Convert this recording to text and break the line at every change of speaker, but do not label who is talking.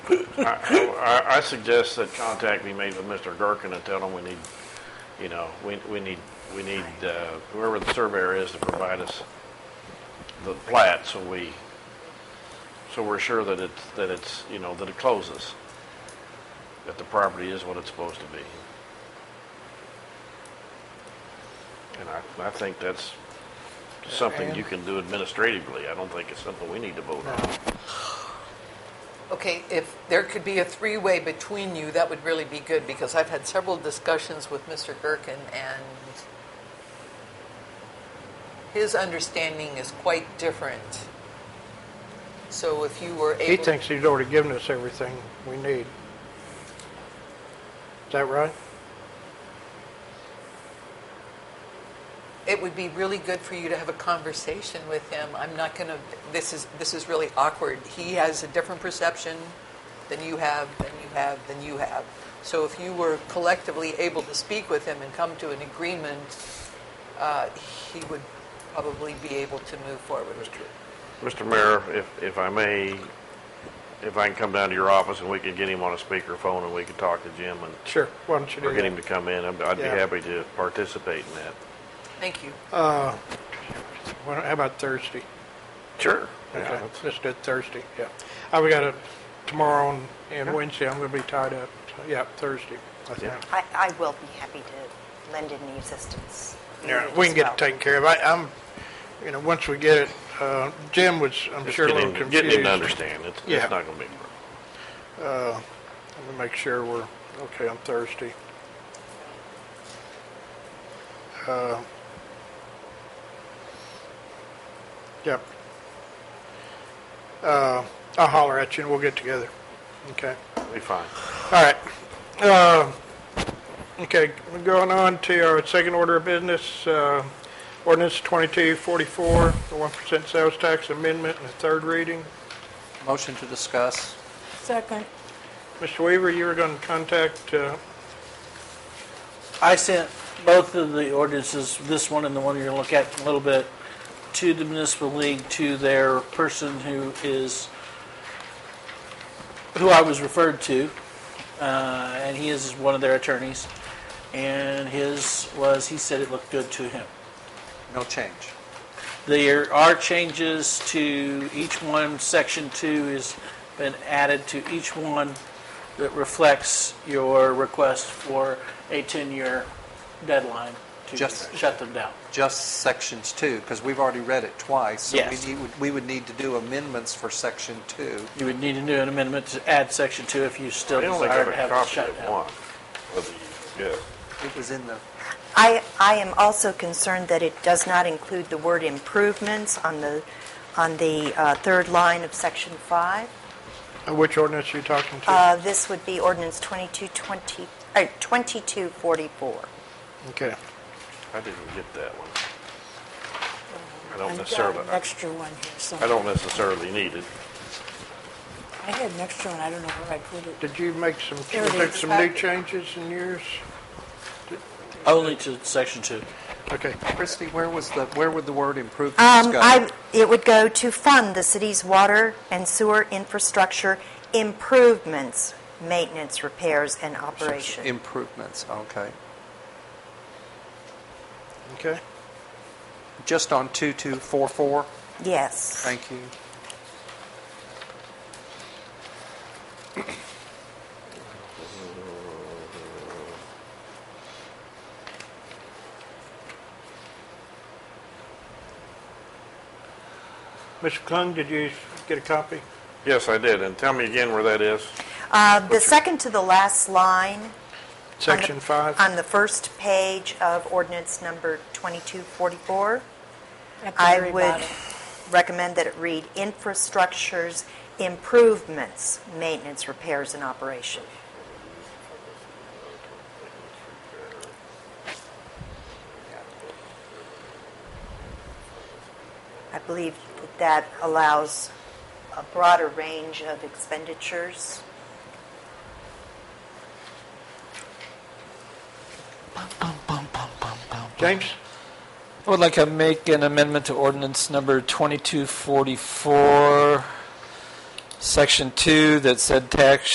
I, I, I suggest that contact be made with Mr. Gherkin and tell him we need, you know, we, we need, we need, uh, whoever the surveyor is to provide us the plat so we, so we're sure that it's, that it's, you know, that it closes. That the property is what it's supposed to be. And I, I think that's something you can do administratively. I don't think it's something we need to vote on.
Okay, if there could be a three-way between you, that would really be good, because I've had several discussions with Mr. Gherkin, and his understanding is quite different. So if you were
He
able...
thinks he's already given us everything we need. Is that right?
it would be really good for you to have a conversation with him. I'm not going to. This is this is really awkward. He has a different perception than you have, than you have, than you have. So if you were collectively able to speak with him and come to an agreement, uh, he would probably be able to move forward.
Mr. Mayor, if, if I may, if I can come down to your office and we could get him on a speakerphone and we could talk to Jim and,
Sure. Why don't you
or
do
get him to
that?
come in, I'd I'd be
Yeah.
happy to participate in that.
Thank you.
Why don't- How about Thursday?
Sure.
Okay, let's do it Thursday, yeah. I've got it tomorrow and- and Wednesday, I'm going to be tied up. So, Yeah, Thursday, I think.
I, I will be happy to lend any assistance.
Yeah, we can get it taken care of. I, I'm, you know, once we get it, uh, Jim was, I'm
Just
sure, a little
getting,
confused.
getting him to understand, it's,
Yeah.
it's not gonna be, a problem.
Let me make sure we're okay on Thursday. Uh, Yep. Uh, I'll holler at you and we'll get together. Okay.
it'll be fine.
All right. Uh, Okay, we're going on to our second order of business, uh, ordinance 2244, the 1% sales tax amendment and the third reading.
Motion to discuss.
Second.
Mr. Weaver, you were going to contact uh,
I sent both of the ordinances, this one and the one you're gonna look at in a little bit, to the municipal league, to their person who is, who I was referred to, uh, and he is one of their attorneys. And his was, he said it looked good to him.
No change.
There are changes to each one. Section two has been added to each one that reflects your request for a 10-year deadline to
Just-
shut them down.
Just sections two, because we've already read it twice. so we
Yes.
need- We would need to do amendments for section two.
You would need to do an amendment to add section two if you still
They only
desire
got
to
a
have it
copy
shut
of
down.
one. of the- Yeah,
It was in the,
I, I am also concerned that it does not include the word improvements on the, on the uh, third line of section five.
Uh, Which ordinance are you talking to?
Uh, This would be ordinance 2220, uh, 2244.
Okay.
I didn't get that one. I don't
I've got
necessarily,
an extra one here, so.
I don't necessarily need it.
I had an extra one, I don't know where I put it.
Did you make some,
There it
make
is. Uh,
some new changes in yours?
Only to section two.
Okay.
Christie, where was the, where would the word improvements
Um,
go?
I, it would go to fund the city's water and sewer infrastructure improvements, maintenance, repairs, and operation.
Improvements, okay.
Okay.
Just on 2244,
Yes.
thank you.
Mr. Klung, did you get a copy?
Yes, I did, and tell me again where that is.
Uh, The second to the last line On the-
Section five?
On the first page of ordinance number 2244,
At the
I
very
would
bottom.
recommend that it read infrastructures, improvements, maintenance, repairs, and operation. I believe that that allows a broader range of expenditures.
James?
I would like to make an amendment to ordinance number 2244, section 2, that said tax